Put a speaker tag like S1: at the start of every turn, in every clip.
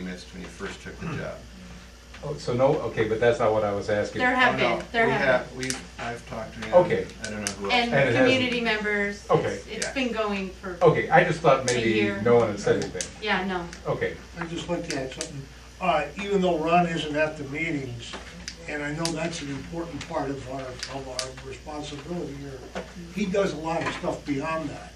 S1: asked when you first took the job.
S2: Oh, so no, okay, but that's not what I was asking.
S3: There have
S1: Oh, no,
S3: been, there
S1: we
S3: have
S1: We've, I've talked to him.
S2: Okay.
S1: I don't know who
S3: been.
S1: else.
S2: And
S3: And
S2: it
S3: community members, it's,
S2: Okay.
S3: it's
S1: Yeah.
S3: been going for,
S2: Okay, I just thought maybe
S3: year.
S2: no one had said anything.
S3: yeah, no.
S2: Okay,
S4: I'd just like to add something. Uh, even though Ron isn't at the meetings, and I know that's an important part of our, of our responsibility here, he does a lot of stuff beyond that.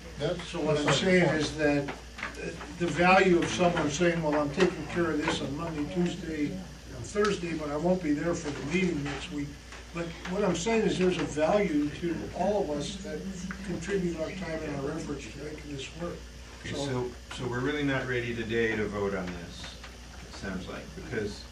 S4: So what I'm saying is that uh, the value of someone saying, well, I'm taking care of this on Monday, Tuesday, and Thursday, but I won't be there for the meeting next week. But what I'm saying is there's a value to all of us that contribute our time and our efforts to making this work.
S1: Okay, so, so we're really not ready today to vote on this, it sounds like, because, is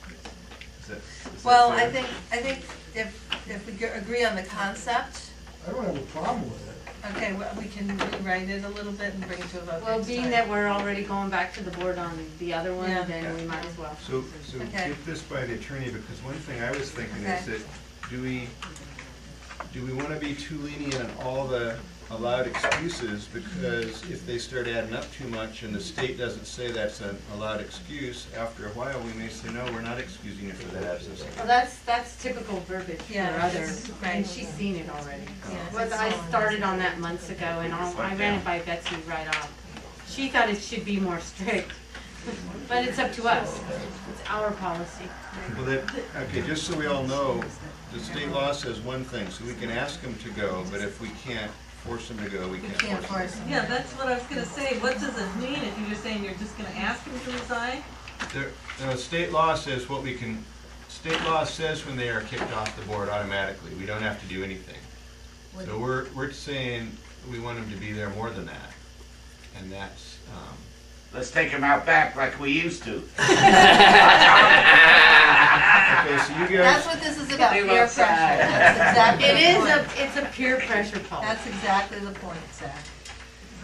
S1: that? is that
S5: Well, I
S1: fair?
S5: think, I think if, if we g- agree on the concept,
S4: I don't have a problem with it.
S5: okay, well, we can rewrite it a little bit and bring it to a vote
S3: Well,
S5: next
S3: being
S5: time.
S3: that we're already going back to the board on the other one,
S5: Yeah.
S3: then we might as well.
S1: So, so
S5: Okay.
S1: get this by the attorney, because one thing I was thinking is
S5: Okay.
S1: that, do we, do we wanna be too lenient on all the allowed excuses? Because if they start adding up too much and the state doesn't say that's an allowed excuse, after a while, we may say, no, we're not excusing you for that absence.
S3: Well, that's, that's typical verbiage for
S5: Yeah,
S3: other,
S5: it's-
S3: and
S5: right.
S3: she's seen it already.
S5: Yeah,
S3: Well,
S5: it's
S3: I
S5: all-
S3: started on that months ago and I'll- I ran it by Betsy right off. She thought it should be more strict, but it's up to us. It's our policy.
S1: Well, that, okay, just so we all know, the state law says one thing, so we can ask them to go, but if we can't force them to go, we
S5: We
S1: can't
S5: can't
S1: force them.
S5: force it.
S6: Yeah, that's what I was gonna say, what does it mean if you're saying you're just gonna ask him to resign?
S1: There, no, state law says what we can, state law says when they are kicked off the board automatically, we don't have to do anything. So we're, we're saying we want them to be there more than that, and that's, um,
S7: Let's take him out back like we used to.
S1: um, okay, so you
S5: That's
S1: guys,
S5: what this is about,
S6: They
S5: peer pressure.
S6: love Zach.
S5: That's exactly
S3: It is
S5: the
S3: a,
S5: point.
S3: it's a peer pressure policy.
S5: That's exactly the point, Zach.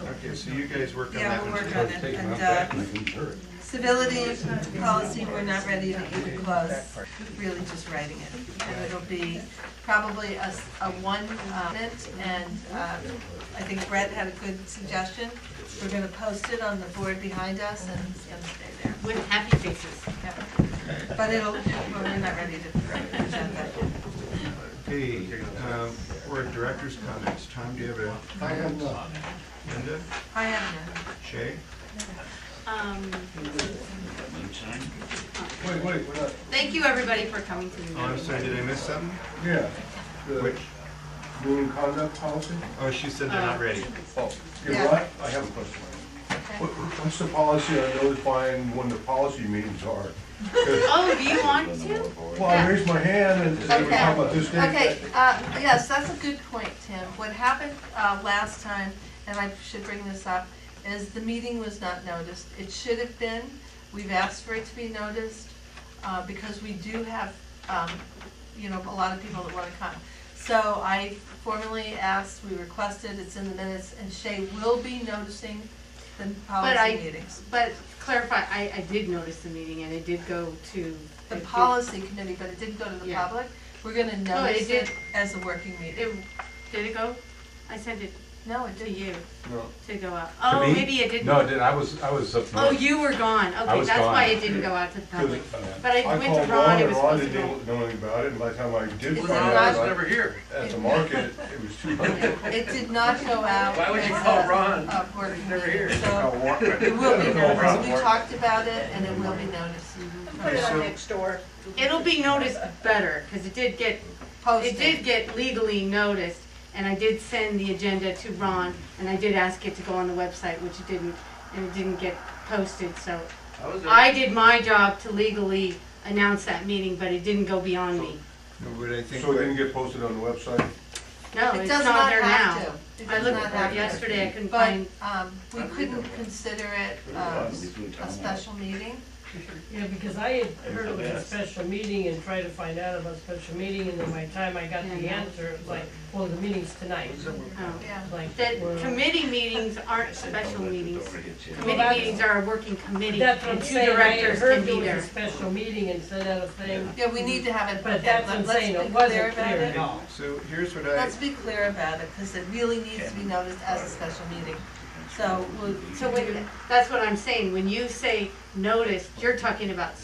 S1: okay, so you guys work on
S5: Yeah,
S1: that
S5: we'll
S1: one
S5: work
S1: today.
S5: on
S2: Let's
S5: it,
S2: take them out
S5: and,
S2: back
S5: uh,
S2: and I can hear it.
S5: civility policy, we're not ready to even close, really just writing it. And it'll be probably a, s- a one, uh, minute, and, uh, I think Brett had a good suggestion. We're gonna post it on the board behind us and it's gonna stay there.
S3: With happy faces.
S5: Yep. But it'll, well, we're not ready to present that.
S1: Okay, um, we're at director's comments, Tom, do you have a?
S4: I have none.
S1: Linda,
S5: I have none.
S1: Shay?
S3: Um,
S4: Wait, wait, we're not,
S3: thank you, everybody, for coming to the
S1: Oh, I'm
S3: meeting.
S1: sorry, did I miss something?
S4: yeah, the
S1: Which,
S4: ruling conduct policy?
S1: oh, she said they're
S5: Uh,
S1: not ready.
S8: You know what? I have a question. What- What's the policy on notifying when the policy meetings are?
S3: Oh, do you want to?
S8: Well, I raised my hand and said, we talk about this date.
S5: Okay, uh, yes, that's a good point, Tim. What happened uh, last time, and I should bring this up, is the meeting was not noticed. It should have been. We've asked for it to be noticed uh, because we do have, um, you know, a lot of people that want to come. So I formally asked, we requested, it's in the minutes, and Shay will be noticing the
S3: I-
S5: policy meetings.
S3: But clarify, I, I did notice the meeting and it did go to.
S5: The
S3: it did-
S5: policy committee, but it didn't go to the
S3: Yeah.
S5: public. We're going to
S3: No, it
S5: notice it
S3: did.
S5: as a working meeting.
S3: It, did it go? I sent it
S5: No, it
S3: to
S5: didn't.
S3: you
S4: No.
S3: to go out. Oh,
S2: me?
S3: maybe it didn't.
S2: No, I didn't, I was, I was up
S3: Oh,
S2: north.
S3: you were gone. Okay,
S2: was
S3: that's why
S2: gone.
S3: it didn't go out to the public.
S8: 'Cause, uh,
S3: But I went
S8: called
S3: to Ron, it
S8: and
S3: was
S8: Ron
S3: supposed to
S8: didn't
S3: go.
S8: Know anything about it, and by the time I
S5: Is
S8: did find
S5: it
S8: out,
S5: Ron's
S8: I-
S7: here.
S8: at the market, it was too late.
S5: It did not go out.
S7: Why would you
S5: as
S7: call
S5: a-
S7: Ron?
S5: a work
S7: never
S5: meeting,
S7: here.
S5: So it will be noticed. We talked about it and it will be noticed.
S6: Put it on next door.
S3: It'll be noticed better, cause it did get It did
S5: Posted.
S3: get legally noticed, and I did send the agenda to Ron, and I did ask it to go on the website, which it didn't, and it didn't get posted, so. I did my job to legally announce that meeting, but it didn't go beyond me.
S1: No, But I think.
S8: So it didn't get posted on the website?
S3: No,
S5: It
S3: it's
S5: does
S3: not
S5: not
S3: there
S5: have
S3: now.
S5: to. It
S3: I
S5: does
S3: looked
S5: not have
S3: for it
S5: to.
S3: yesterday, I couldn't
S5: But
S3: find,
S5: um, we couldn't consider it um, a special meeting.
S9: Yeah, because I had heard of a special meeting and tried to find out about special meeting, and then by the time I got the
S3: Yeah.
S9: answer, it was like, well, the meeting's tonight.
S3: oh.
S5: Yeah.
S9: Like, well,
S3: The committee meetings aren't special meetings. Committee
S9: that's-
S3: meetings are a working committee,
S9: That's what
S3: and
S9: I'm
S3: two
S9: saying, I had
S3: directors can
S9: heard
S3: be
S9: there
S3: there.
S9: was a special meeting and sent out a thing,
S5: Yeah, we need to have it.
S9: but
S5: okay,
S9: that's what I'm
S5: let- let's
S9: saying,
S5: be
S9: it wasn't
S5: about
S9: clear
S5: it.
S9: at all.
S1: So here's what I.
S5: Let's be clear about it because it really needs to be noticed as a special meeting. So we'll.
S3: So when, that's what I'm saying, when you say noticed, you're talking about